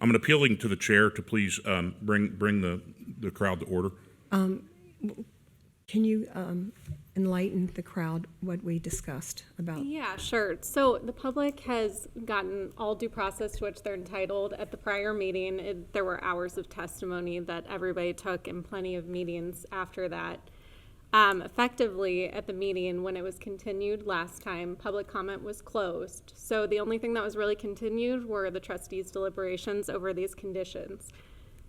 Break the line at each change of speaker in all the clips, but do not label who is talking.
I'm appealing to the chair to please um, bring, bring the, the crowd to order.
Can you um, enlighten the crowd what we discussed about?
Yeah, sure. So the public has gotten all due process to which they're entitled. At the prior meeting, it, there were hours of testimony that everybody took and plenty of meetings after that. Um, effectively, at the meeting, when it was continued last time, public comment was closed. So the only thing that was really continued were the trustees' deliberations over these conditions.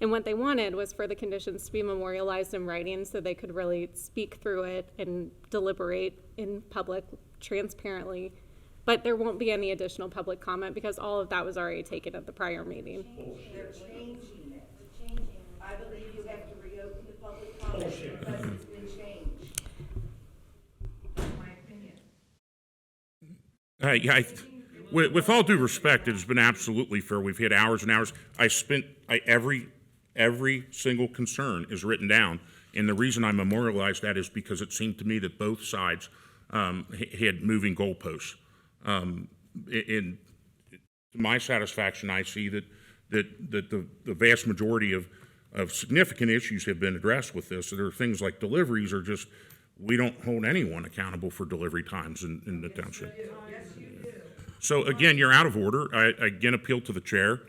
And what they wanted was for the conditions to be memorialized in writing so they could really speak through it and deliberate in public transparently. But there won't be any additional public comment because all of that was already taken at the prior meeting.
They're changing it. I believe you have to reopen the public comment because it's been changed. That's my opinion.
I, I, with, with all due respect, it has been absolutely fair. We've had hours and hours. I spent I, every every single concern is written down, and the reason I memorialized that is because it seemed to me that both sides um, h- had moving goalposts. Um, a- and to my satisfaction, I see that that that the, the vast majority of of significant issues have been addressed with this. So there are things like deliveries are just we don't hold anyone accountable for delivery times in, in the township. So again, you're out of order. I I again appeal to the chair.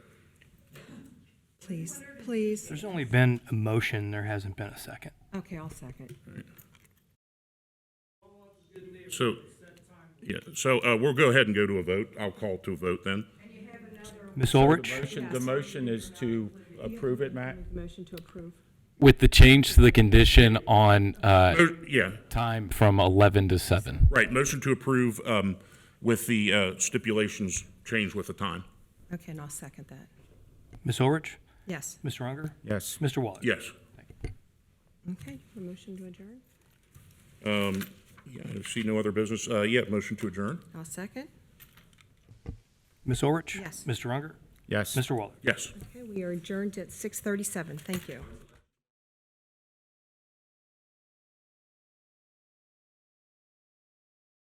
Please, please.
There's only been a motion, there hasn't been a second.
Okay, I'll second.
So, yeah, so uh, we'll go ahead and go to a vote. I'll call to a vote then.
Ms. Ulrich,
Motion, the motion is to approve it, Matt?
Motion to approve.
With the change to the condition on uh,
Oh, Yeah,
time from 11 to 7.
right, motion to approve um, with the uh, stipulations changed with the time.
Okay, and I'll second that.
Ms. Ulrich,
Yes.
Mr. Unger,
Yes.
Mr. Waller.
Yes.
Okay, a motion to adjourn?
Yeah, I see no other business. Uh, Yeah, motion to adjourn?
I'll second.
Ms. Ulrich?
Yes.
Mr. Unger,
Yes.
Mr. Waller.
Yes.
Okay, we are adjourned at 6:37. Thank you.